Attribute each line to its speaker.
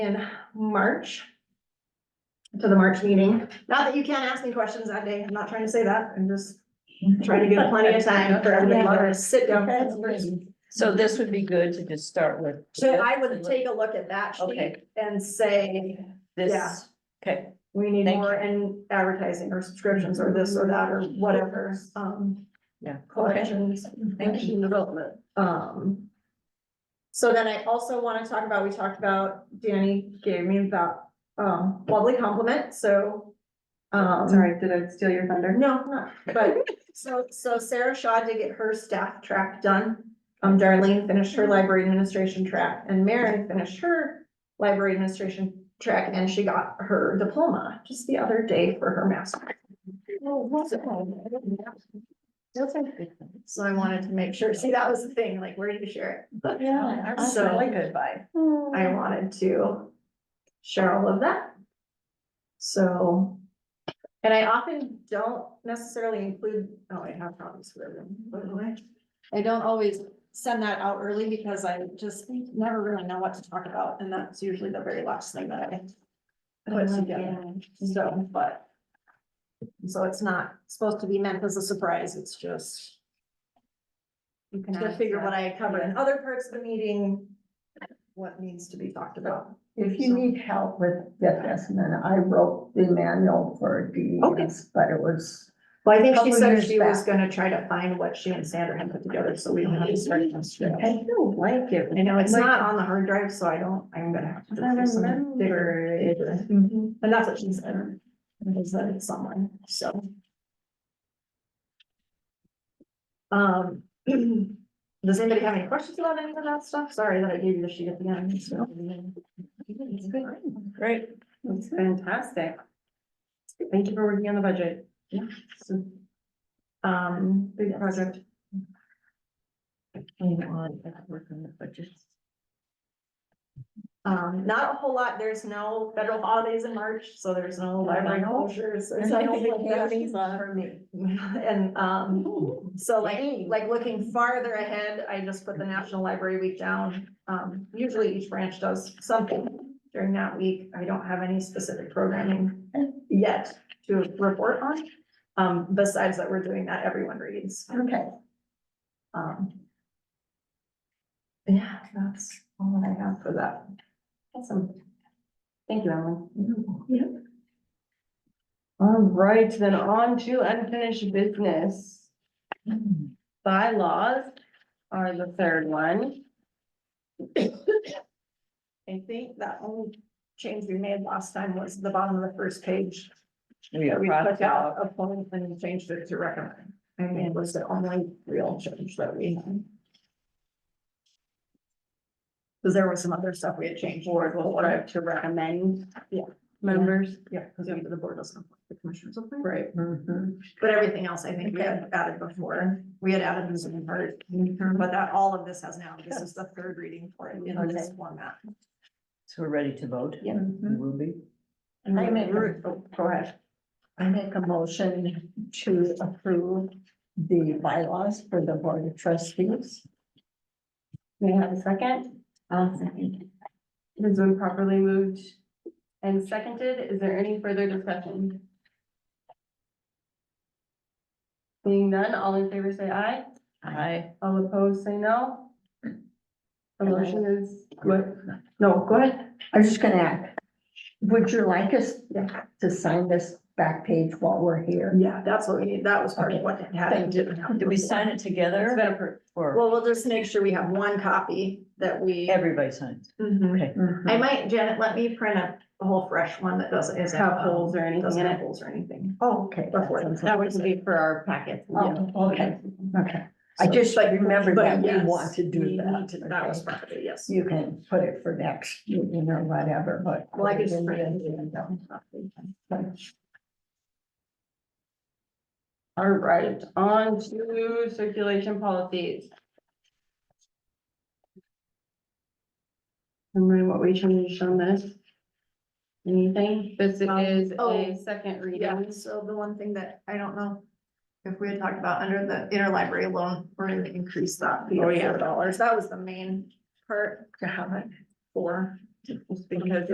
Speaker 1: in March. To the March meeting. Not that you can't ask me questions that day. I'm not trying to say that. I'm just trying to give plenty of time for everybody to sit down.
Speaker 2: So this would be good to just start with.
Speaker 1: So I would take a look at that sheet
Speaker 2: Okay.
Speaker 1: and say, yeah.
Speaker 2: This, okay,
Speaker 1: we need
Speaker 2: Thank
Speaker 1: more in advertising or subscriptions or this or that or whatever, um.
Speaker 2: Yeah.
Speaker 1: Collections,
Speaker 2: Thank
Speaker 1: action development, um. So then I also wanna talk about, we talked about, Danny gave me that, um, lovely compliment, so. Um.
Speaker 3: Sorry, did I steal your thunder?
Speaker 1: No, not, but, so, so Sarah Shaw did get her staff track done. Um, Darlene finished
Speaker 2: Mm-hmm.
Speaker 1: her library administration track and Mary finished her library administration track and she got her diploma just the other day for her master. Oh, So I wanted to make sure, see, that was the thing, like, where do you share it? Um,
Speaker 2: yeah, that's
Speaker 1: So-
Speaker 2: really good vibe.
Speaker 4: Oh,
Speaker 1: I wanted to share all of that. So, and I often don't necessarily include, oh, I have problems with them, by the way. I don't always send that out early because I just never really know what to talk about, and that's usually the very last thing that I
Speaker 4: Oh,
Speaker 1: put together, so, but. So it's not supposed to be meant as a surprise, it's just
Speaker 2: You can
Speaker 1: to
Speaker 2: ask
Speaker 1: figure what
Speaker 2: that.
Speaker 1: I covered in other parts of the meeting, what needs to be talked about.
Speaker 4: If you need help with debt estimate, I wrote the manual for DES, but it was,
Speaker 1: Well, I think she
Speaker 4: Couple
Speaker 1: said
Speaker 4: years
Speaker 1: she was
Speaker 4: back.
Speaker 1: gonna try to find what she and Sandra had put together, so we don't have to start from scratch.
Speaker 4: I don't like it.
Speaker 1: I know, it's
Speaker 4: Like-
Speaker 1: not on the hard drive, so I don't, I'm gonna have to.
Speaker 4: I
Speaker 1: do some
Speaker 4: remember. Mm-hmm.
Speaker 1: bigger- Mhm. And that's what she said, is that it's someone, so. Um, does anybody have any questions about any of that stuff? Sorry that I gave you the sheet at the end, so.
Speaker 2: Great,
Speaker 3: That's fantastic. Thank you for working on the budget.
Speaker 1: Yeah.
Speaker 3: So
Speaker 1: Um,
Speaker 3: big project.
Speaker 1: Um, not a whole lot, there's no federal holidays in March, so there's no library closures. there's nothing like that.
Speaker 3: For me.
Speaker 1: And, um, so like, like looking farther ahead, I just put the National Library Week down. Um, usually each branch does something during that week, I don't have any specific programming yet to report on. Um, besides that, we're doing that everyone reads,
Speaker 4: Okay,
Speaker 1: um. Yeah, that's all I have for that.
Speaker 3: Awesome. Thank you, Ellen.
Speaker 1: Yeah.
Speaker 3: All right, then on to unfinished business. Bylaws are the third one.
Speaker 1: I think that only change we made last time was the bottom of the first page.
Speaker 2: we
Speaker 1: that
Speaker 2: are
Speaker 1: We
Speaker 2: crossed
Speaker 1: took out
Speaker 2: out.
Speaker 1: appoint and changed it to recommend. I mean, it was the only real change that we had. Cause there was some other stuff we had changed.
Speaker 3: Board will work to recommend.
Speaker 1: Yeah.
Speaker 3: Members.
Speaker 1: Yeah, cause we- the board doesn't appoint the commissioners. appoint.
Speaker 3: Right.
Speaker 4: mhm.
Speaker 1: But everything else, I think we had added before. We had added this in part, but that, all of this has now, this is the third reading for it in this format.
Speaker 2: So we're ready to vote?
Speaker 3: Yeah.
Speaker 2: We will be.
Speaker 4: I make a-
Speaker 3: Ruth, oh, Go ahead.
Speaker 4: I make a motion to approve the bylaws for the board of trustees.
Speaker 3: We have a second? I'll second. It has been properly moved and seconded. Is there any further discussion? Seeing none, all in favor say aye.
Speaker 2: Aye.
Speaker 3: All opposed say no. The motion is, what? No, go ahead.
Speaker 4: I was just gonna ask, would you like us to sign this back page while we're here?
Speaker 1: Yeah, that's what we need. That was part of what had happened.
Speaker 2: Did we sign it
Speaker 3: It's
Speaker 2: together
Speaker 3: been approved.
Speaker 2: or
Speaker 1: Well, we'll just make sure we have one copy that we.
Speaker 2: everybody signs?
Speaker 1: Mhm.
Speaker 2: Okay,
Speaker 4: Mm-hmm.
Speaker 1: I might, Janet, let me print a a whole fresh one that doesn't, isn't. um,
Speaker 3: Have holes or anything
Speaker 1: Doesn't
Speaker 3: in
Speaker 1: have
Speaker 3: it.
Speaker 1: holes or anything.
Speaker 4: Oh, okay. that
Speaker 1: Before.
Speaker 4: sounds
Speaker 3: That
Speaker 4: like-
Speaker 3: would be for our packet. Yeah.
Speaker 4: Oh, okay, okay. I just like remembered
Speaker 1: But
Speaker 4: that we
Speaker 1: yes,
Speaker 4: want to do
Speaker 1: we need
Speaker 4: that.
Speaker 1: to- That was
Speaker 4: Okay.
Speaker 1: part of it, yes.
Speaker 4: You can put it for next, meeting or whatever, but.
Speaker 1: Well, I
Speaker 4: put it
Speaker 1: just
Speaker 4: in the
Speaker 1: printed
Speaker 4: agenda.
Speaker 3: All right, on to circulation policies. Remember what we changed on this? Anything? This
Speaker 1: Um,
Speaker 3: is
Speaker 1: oh,
Speaker 3: a second
Speaker 1: Yeah,
Speaker 3: reading.
Speaker 1: so the one thing that I don't know, if we had talked about under the interlibrary loan, we're gonna increase that. fee to
Speaker 3: Oh, yeah.
Speaker 1: $4. That was the main part. To have it. Four.
Speaker 3: Because